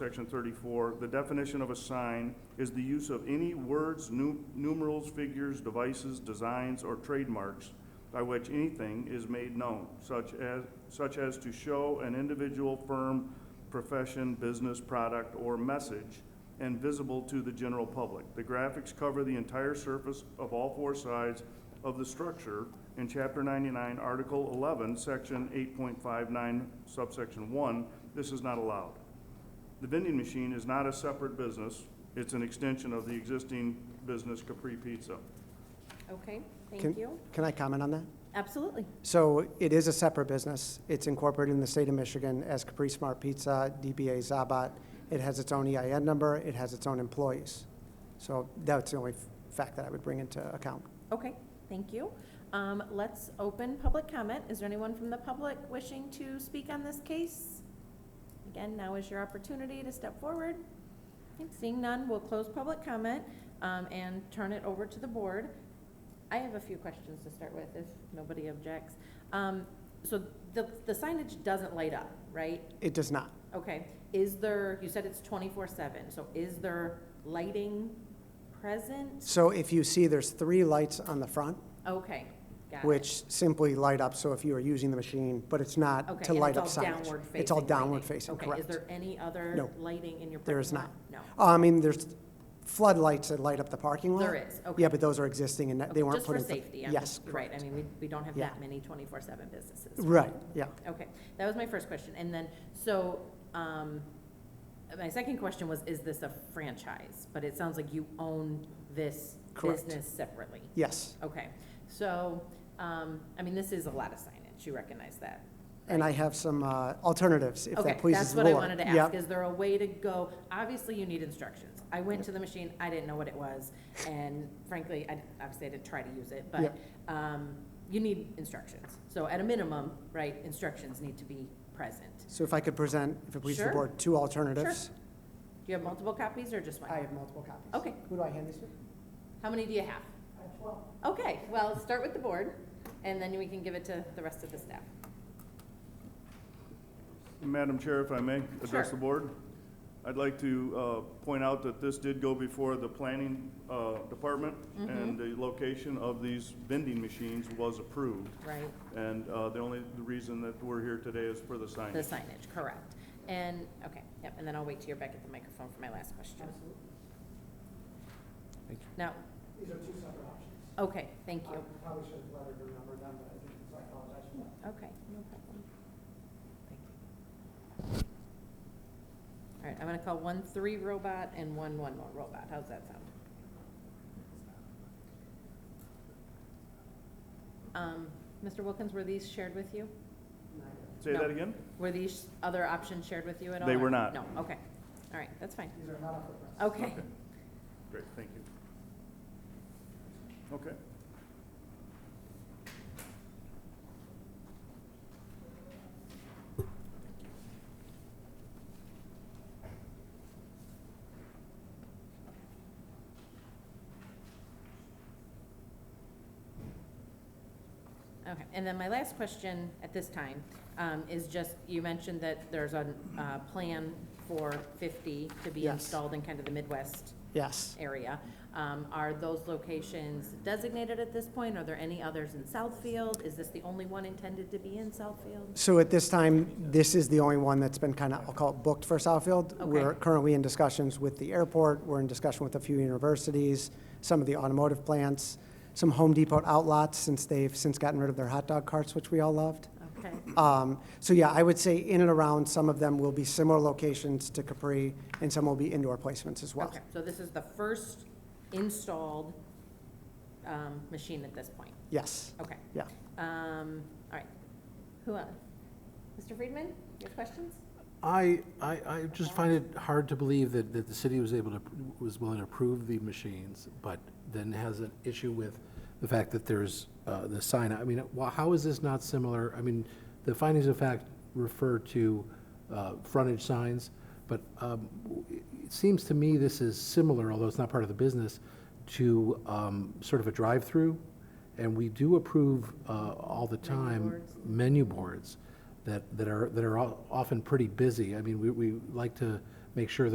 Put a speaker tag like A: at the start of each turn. A: section thirty-four, the definition of a sign is the use of any words, nu- numerals, figures, devices, designs, or trademarks by which anything is made known, such as, such as to show an individual firm, profession, business, product, or message, and visible to the general public. The graphics cover the entire surface of all four sides of the structure in Chapter 99, Article 11, Section 8.59, subsection 1. This is not allowed. The vending machine is not a separate business. It's an extension of the existing business Capri Pizza.
B: Okay,
C: Can-
B: thank you.
C: Can I comment on that?
B: Absolutely.
C: So it is a separate business. It's incorporated in the state of Michigan as Capri Smart Pizza, DBA Zabat. It has its own EIN number, it has its own employees. So that's the only f- fact that I would bring into account.
B: Okay, thank you. Um, Let's open public comment. Is there anyone from the public wishing to speak on this case? Again, now is your opportunity to step forward. Okay, Seeing none, we'll close public comment um, and turn it over to the board. I have a few questions to start with, if nobody objects. Um, So the the signage doesn't light up, right?
C: It does not.
B: Okay, is there, you said it's twenty-four seven, so is there lighting present?
C: So if you see, there's three lights on the front,
B: Okay, got it.
C: which simply light up, so if you are using the machine, but it's not
B: Okay,
C: to
B: and
C: light up signage.
B: It's all downward facing.
C: It's all downward
B: lighting.
C: facing,
B: Okay, is
C: correct.
B: there any other
C: No.
B: lighting in your parking lot?
C: There is
B: No.
C: I mean, there's floodlights that light up the parking lot.
B: There is, okay.
C: Yeah, but those are existing and that-
B: Okay,
C: they weren't put in.
B: Just for safety, I'm
C: Yes,
B: just, right,
C: correct.
B: I mean, we, we don't have
C: Yeah.
B: that many twenty-four seven businesses.
C: Right, yeah.
B: Okay, that was my first question, and then, so, um, my second question was, is this a franchise? But it sounds like you own this
C: Correct.
B: business separately.
C: Yes,
B: Okay, so, um, I mean, this is a lot of signage, you recognize that?
C: and I have some uh, alternatives, if that pleases the
B: Okay, that's what I
C: board.
B: wanted to ask,
C: Yep.
B: is there a way to go, obviously you need instructions. I went to the machine, I didn't know what it was, and frankly, I, obviously I didn't try to use it, but,
C: Yep.
B: um, you need instructions. So at a minimum, right, instructions need to be present.
C: So if I could present, if it pleases the
B: Sure.
C: board, two alternatives.
B: Do you have multiple copies or just one?
C: I have multiple copies.
B: Okay.
C: Who do I hand this to?
B: How many do you have?
C: I have 12.
B: Okay, well, start with the board, and then we can give it to the rest of the staff.
A: Madam Chair, if I may, address
B: Sure.
A: the board. I'd like to uh, point out that this did go before the planning uh, department,
B: Mm-hmm.
A: and the location of these vending machines was approved.
B: Right.
A: And uh, the only reason that we're here today is for the
B: The
A: signage.
B: signage, correct. And, okay, yep, and then I'll wait till you're back at the microphone for my last question.
D: Thank you.
B: Now,
C: These are two separate options.
B: okay, thank you.
C: probably should have lettered or numbered them, but I didn't, so I apologize for that.
B: Okay, no problem. Thank you. All right, I'm gonna call one three robot and one one more robot. How's that sound? Um, Mr. Wilkins, were these shared with you?
A: Say
B: No.
A: that again?
B: Were these other options shared with you at all?
A: They
B: or-
A: were not.
B: No, okay. All right, that's fine.
C: These are not up for press.
B: Okay.
A: Okay. Great, thank you. Okay.
B: Okay, and then my last question at this time um, is just, you mentioned that there's a uh, plan for 50 to be
C: Yes.
B: installed in kind of the Midwest
C: Yes.
B: area. Um, Are those locations designated at this point? Are there any others in Southfield? Is this the only one intended to be in Southfield?
C: So at this time, this is the only one that's been kind of, I'll call it booked for Southfield.
B: Okay.
C: We're currently in discussions with the airport, we're in discussion with a few universities, some of the automotive plants, some Home Depot outlets, since they've since gotten rid of their hot dog carts, which we all loved.
B: Okay,
C: Um, So yeah, I would say in and around, some of them will be similar locations to Capri, and some will be indoor placements as well.
B: okay, so this is the first installed um, machine at this point?
C: Yes,
B: Okay,
C: yeah.
B: um, all right. Who else? Mr. Friedman, your questions?
D: I, I, I just find it hard to believe that, that the city was able to, was willing to approve the machines, but then has an issue with the fact that there's, uh, the sign, I mean, wh- how is this not similar? I mean, the findings of fact refer to, uh, frontage signs, but, um, w- it seems to me this is similar, although it's not part of the business, to, um, sort of a drive-through, and we do approve, uh, all the time.
B: boards.
D: menu boards that, that are, that are al- often pretty busy. I mean, we, we like to make sure